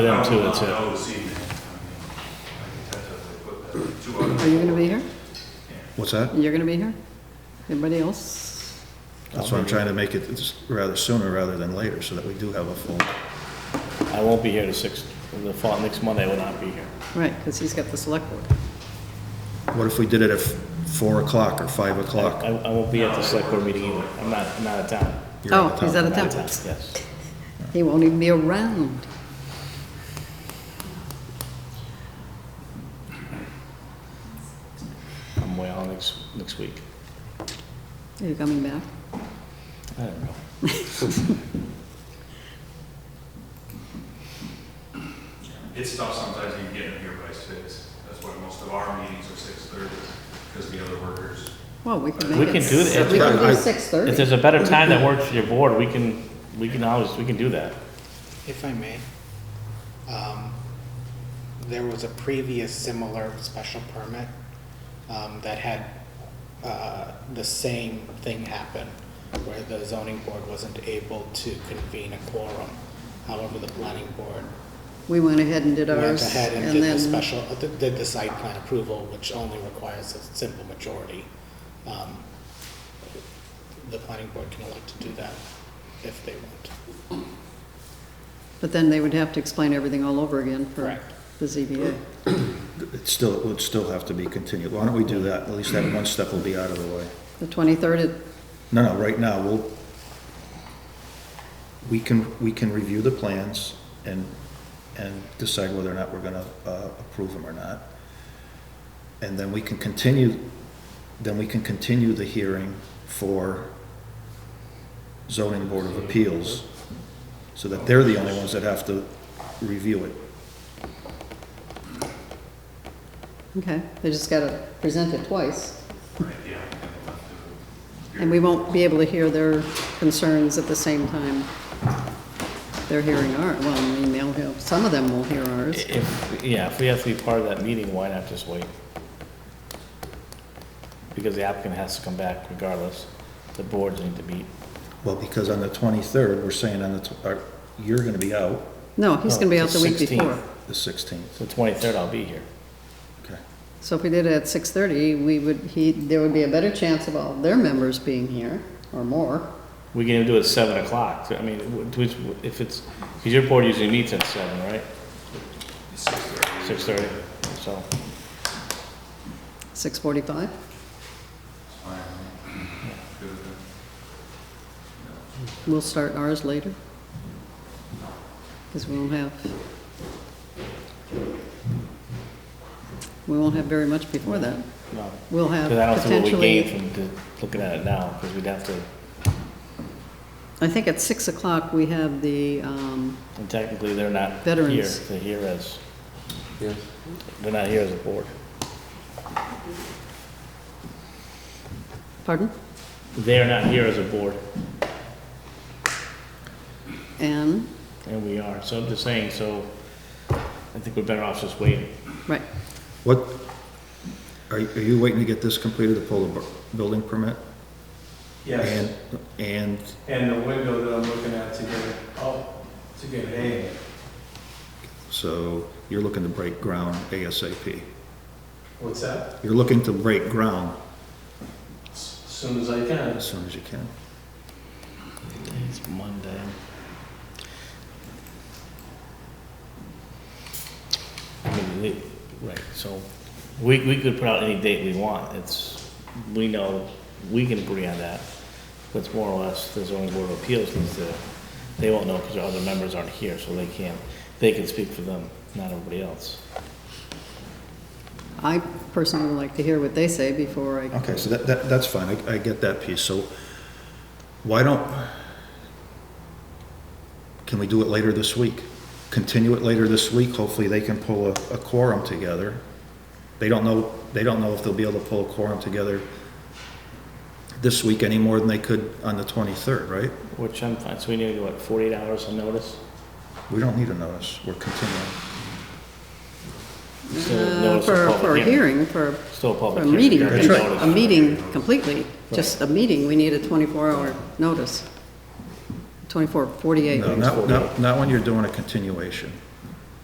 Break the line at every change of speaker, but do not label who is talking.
them too,
I'll-
that's
I'll
it.
know this evening. I mean, I can tentatively put that- two
Are
other-
you gonna be here?
What's that?
You're gonna be here? Anybody else?
That's why I'm trying to make it s- rather sooner rather than later, so that we do have a full,
I won't be here the sixth, the fall, next Monday I will not be here.
Right, because he's got the select board.
what if we did it at f- four o'clock or five o'clock?
I, I won't be at the select board meeting either, I'm not, I'm not out of town.
You're
Oh,
out of
he's
town.
out of
I'm out of town,
town.
yes.
He won't even be around.
I'm way on next, next week.
Are you coming back?
I don't know.
It's tough sometimes even getting here by six. That's why most of our meetings are six thirty, because the other workers.
Well, we could
We
make it.
can do it.
s- We can
I-
do six
If
thirty.
there's a better time that works for your board, we can, we can always, we can do that.
If I may, um, there was a previous similar special permit, um, that had, uh, the same thing happen, where the zoning board wasn't able to convene a quorum. However, the planning board
We went ahead and did
went
ours,
ahead and
and
did the
then,
special, uh, did did the site plan approval, which only requires a simple majority. Um, The planning board can elect to do that if they want.
but then they would have to explain everything all over again for
Correct.
the ZBA.
It's still, it would still have to be continued. Why don't we do that? At least that one step will be out of the way.
The twenty-third,
No, no, right now, we'll, we can, we can review the plans and, and decide whether or not we're gonna uh, approve them or not. And then we can continue, then we can continue the hearing for zoning board of appeals, so that they're the only ones that have to review it.
okay, they just gotta present it twice,
Right, yeah. I think we'll have to-
and we won't be able to hear their concerns at the same time. They're hearing our, well, I mean, they'll hear, some of them will hear ours.
Eh, If, yeah, if we have to be part of that meeting, why not just wait? Because the applicant has to come back regardless, the boards need to meet.
Well, because on the twenty-third, we're saying on the, tw- uh, you're gonna be out
No, he's gonna be
No,
out the week
16th.
before.
the sixteenth,
The twenty-third I'll be here.
okay?
So if we did it at six thirty, we would, he, there would be a better chance of all their members being here, or more.
We can even do it at seven o'clock, I mean, wh- which, if it's, because your board usually meets at seven, right?
It's six thirty.
Six thirty, so,
Six forty-five?
It's fine. Good with it.
We'll start ours later. Because we won't have, we won't have very much before that.
no.
We'll have
Because I don't see what we gain
potentially,
from the- looking at it now, because we'd have to,
I think at six o'clock, we have the, um,
and technically, they're not here,
Veterans.
they're here as, they're not here as a board.
pardon?
They're not here as a board,
And,
and we are, so I'm just saying, so I think we're better off just waiting.
right,
What, are, are you waiting to get this completed to pull the bu- building permit?
Yes,
And, and,
and the window that I'm looking at to get, it oh, to get it in.
so you're looking to break ground ASAP.
What's that?
You're looking to break ground
S- Soon as I can.
as soon as you can.
It's Monday. I mean, we, right, so, we, we could put out any date we want, it's, we know, we can agree on that. But more or less, the zoning board of appeals needs to, they won't know because other members aren't here, so they can't, they can speak for them, not everybody else.
I personally would like to hear what they say before I
Okay, so that, that, that's fine, I, I get that piece, so why don't, can we do it later this week? Continue it later this week, hopefully they can pull a, a quorum together. They don't know, they don't know if they'll be able to pull a quorum together this week any more than they could on the twenty-third, right?
Which I'm fine, so we need, what, forty-eight hours of notice?
Uh,
We don't need a notice, we're continuing.
Still
Uh,
notice of
For,
public
for a hearing, for,
Still a
for
public
a
hearing.
meeting,
You're
That's
gonna
right.
notice.
a meeting completely, just a meeting, we need a 24-hour notice. 24, 48.
No, not, not, not when you're doing a continuation.